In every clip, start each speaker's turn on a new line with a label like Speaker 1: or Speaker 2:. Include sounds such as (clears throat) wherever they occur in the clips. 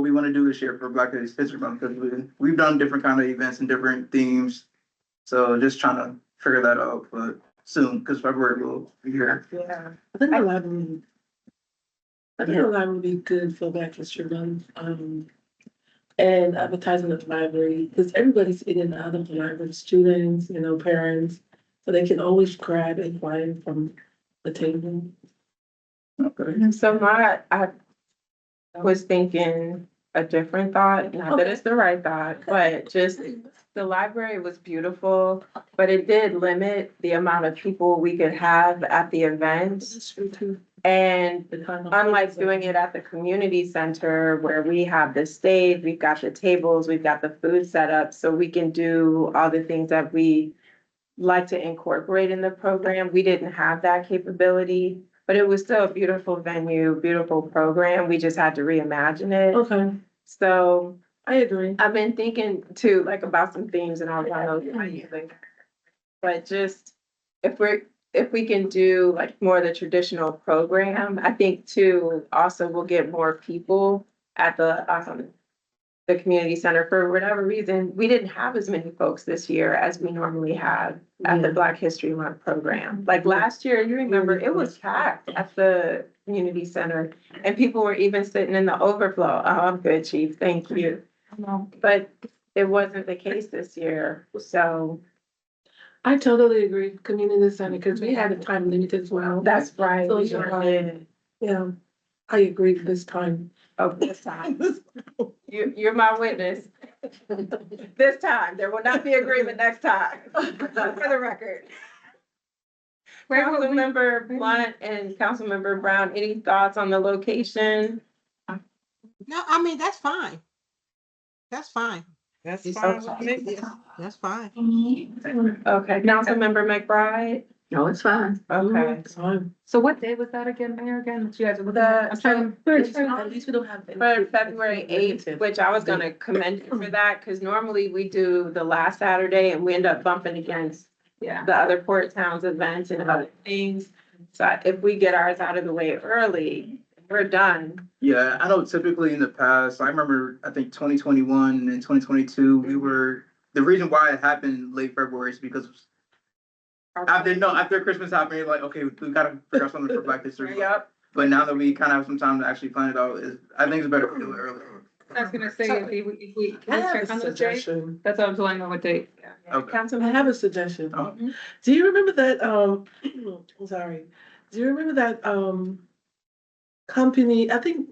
Speaker 1: we want to do this year for Black Ladies History Month, because we, we've done different kind of events and different themes. So just trying to figure that out, but soon, because February will be here.
Speaker 2: Yeah.
Speaker 3: I think a lot would be. I think a lot would be good for Black History Month, um, and advertising at the library, because everybody's in and out of the library, students, you know, parents. So they can always grab and find from the table.
Speaker 1: Okay.
Speaker 2: So my, I was thinking a different thought, not that it's the right thought, but just the library was beautiful, but it did limit the amount of people we could have at the event. And unlike doing it at the community center where we have the stage, we've got the tables, we've got the food set up, so we can do all the things that we like to incorporate in the program. We didn't have that capability, but it was still a beautiful venue, beautiful program. We just had to reimagine it.
Speaker 3: Okay,
Speaker 2: So
Speaker 3: I agree.
Speaker 2: I've been thinking too, like about some themes and all of those. But just if we're, if we can do like more of the traditional program, I think too, also we'll get more people at the, um, the community center for whatever reason. We didn't have as many folks this year as we normally have at the
Speaker 3: Yeah.
Speaker 2: Black History Month program. Like last year, you remember, it was packed at the community center. And people were even sitting in the overflow. Oh, I'm good, chief. Thank you. But it wasn't the case this year, so
Speaker 3: I totally agree, community center, because we had a time limit as well.
Speaker 2: that's right.
Speaker 3: So
Speaker 2: we
Speaker 3: you're
Speaker 2: were
Speaker 3: right.
Speaker 2: in
Speaker 3: Yeah, I agree this time.
Speaker 2: Of this time. You, you're my
Speaker 3: (laughs)
Speaker 2: witness. This time, there will not be agreement next
Speaker 3: (laughs)
Speaker 2: time, for the record. Councilmember Blunt and Councilmember Brown, any thoughts on the location?
Speaker 4: No, I mean, that's fine. That's fine.
Speaker 5: That's
Speaker 4: It's
Speaker 5: fine with
Speaker 4: okay.
Speaker 5: me.
Speaker 4: That's fine.
Speaker 2: Okay, Councilmember McBride?
Speaker 6: No, it's fine.
Speaker 2: Okay.
Speaker 3: Time.
Speaker 6: So what day was that again, Mayor, again, that you guys are looking
Speaker 2: The-
Speaker 6: at? I'm trying.
Speaker 3: At least we don't have.
Speaker 2: For February eighth, which I was gonna commend you for that, because normally we do the last Saturday and we end up bumping against
Speaker 6: Yeah.
Speaker 2: the other port towns events and other things. So if we get ours out of the way early, we're done.
Speaker 1: Yeah, I know typically in the past, I remember, I think twenty twenty-one and twenty twenty-two, we were, the reason why it happened late February is because after, no, after Christmas happened, you're like, okay, we gotta figure out something for Black History Month.
Speaker 2: Yep,
Speaker 1: But now that we kind of have some time to actually plan it out, is, I think it's better to do it earlier.
Speaker 6: I was gonna say, if we, if we,
Speaker 3: I have
Speaker 6: check on
Speaker 3: a
Speaker 6: the date,
Speaker 3: suggestion.
Speaker 6: that's what I was wanting to know what date.
Speaker 1: Okay.
Speaker 3: I
Speaker 2: Councilman,
Speaker 3: have a suggestion. Mm-hmm.
Speaker 1: Oh.
Speaker 3: Do you remember that, um, (clears throat) I'm sorry, do you remember that, um, company, I think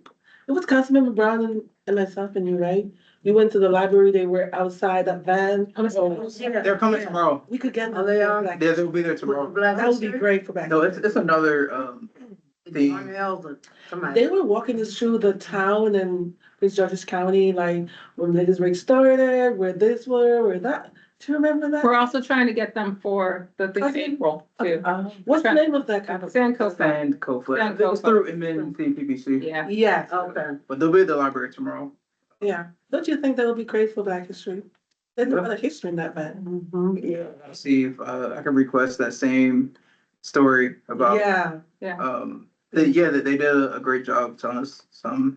Speaker 3: it was Councilmember Brown and, and myself and you, right? We went to the library, they were outside that van. Oh,
Speaker 1: They're coming tomorrow.
Speaker 3: We could get.
Speaker 6: Are they on?
Speaker 3: like-
Speaker 1: Yeah, they'll be there tomorrow.
Speaker 3: That would be great for back.
Speaker 1: No, it's, it's another, um, thing.
Speaker 3: They were walking us through the town and Prince George's County, like when Ladies Break started, where this were, where that. Do you remember that?
Speaker 6: We're also trying to get them for the thing in
Speaker 3: Okay.
Speaker 6: April too.
Speaker 3: Uh, What's the name of that company?
Speaker 6: San Costa,
Speaker 1: And Kofa, I
Speaker 6: And
Speaker 1: think it's
Speaker 6: Kofa.
Speaker 1: through MNCPPC,
Speaker 6: yeah.
Speaker 3: Yeah, oh,
Speaker 1: Okay. but they'll be at the library tomorrow.
Speaker 3: yeah. Don't you think that would be great for Black History? There's a
Speaker 1: Yeah.
Speaker 3: lot of history in that van.
Speaker 1: Yeah. See if, uh, I can request that same story about,
Speaker 3: Yeah,
Speaker 1: um, the, yeah, that they did a great job telling us some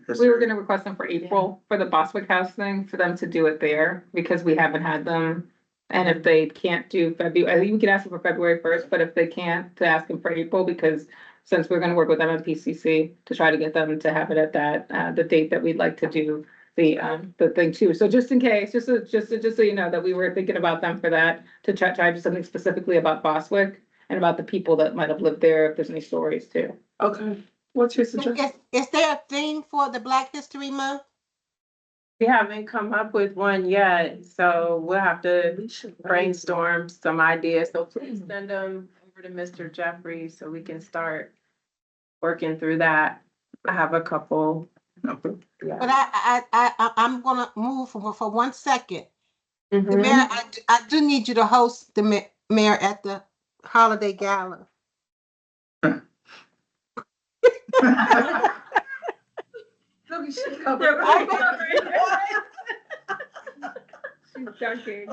Speaker 6: We were
Speaker 1: history.
Speaker 6: gonna request them for April for the Boswick House thing, for them to do it there, because we haven't had them. And if they can't do February, I think we could ask them for February first, but if they can't, to ask them for April, because since we're gonna work with them at PCC to try to get them to have it at that, uh, the date that we'd like to do the, um, the thing too. So just in case, just so, just, so- just so you know that we were thinking about them for that, to try, try to do something specifically about Boswick and about the people that might have lived there, if there's any stories too.
Speaker 3: okay. What's your suggestion?
Speaker 4: Is, is there a theme for the Black History Month?
Speaker 2: we haven't come up with one yet, so we'll have to
Speaker 3: We should
Speaker 2: brainstorm some ideas. So please send them over to Mr. Jeffrey so we can start working through that. I have a couple.
Speaker 1: Okay.
Speaker 4: But I, I, I, I, I'm gonna move for, for one second.
Speaker 3: Mm-hmm.
Speaker 4: The
Speaker 2: Mhm.
Speaker 4: mayor, I, do- I do need you to host the ma- mayor at the holiday gala.
Speaker 6: (laughs)
Speaker 1: (laughs)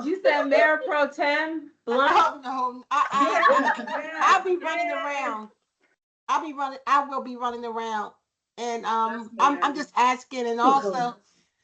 Speaker 2: You said Mayor Pro Tem Blunt?
Speaker 4: Oh, no, I, I, I'll be running around. I'll be running, I will be running around. And, um, I'm, I'm just asking and also,